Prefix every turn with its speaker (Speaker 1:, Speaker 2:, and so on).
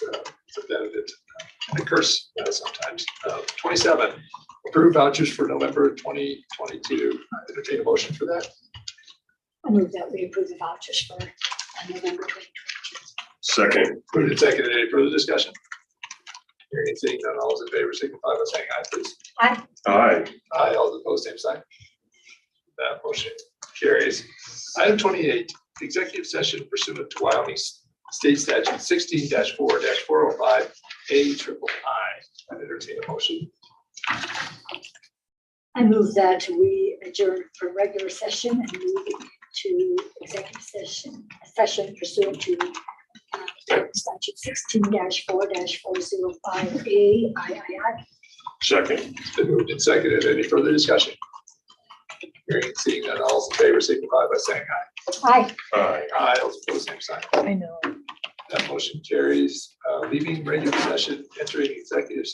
Speaker 1: for benefits. I curse uh, sometimes. Uh, Twenty-seven, approve vouchers for November twenty twenty-two. Entertain a motion for that.
Speaker 2: I move that we approve the vouchers for uh, November twenty
Speaker 3: Second,
Speaker 1: Moved and seconded. Any further discussion? Hearing and seeing none, all those in favor signify by saying aye, please.
Speaker 3: aye,
Speaker 1: Aye, all those opposed, same sign. That motion carries. Item twenty-eight, executive session pursuant to Wyoming State Statute sixteen four four oh five A triple I. I entertain a motion.
Speaker 2: I move that we adjourn for regular session and move to executive session, session pursuant to uh, statute sixteen four four zero five A I I I.
Speaker 3: second,
Speaker 1: It's been moved and seconded. Any further discussion? Hearing and seeing none, all in favor signify by saying aye.
Speaker 2: Aye.
Speaker 3: aye.
Speaker 1: Aye, all opposed, same sign.
Speaker 4: I know.
Speaker 1: That motion carries. Uh, Leaving regular session, entering executive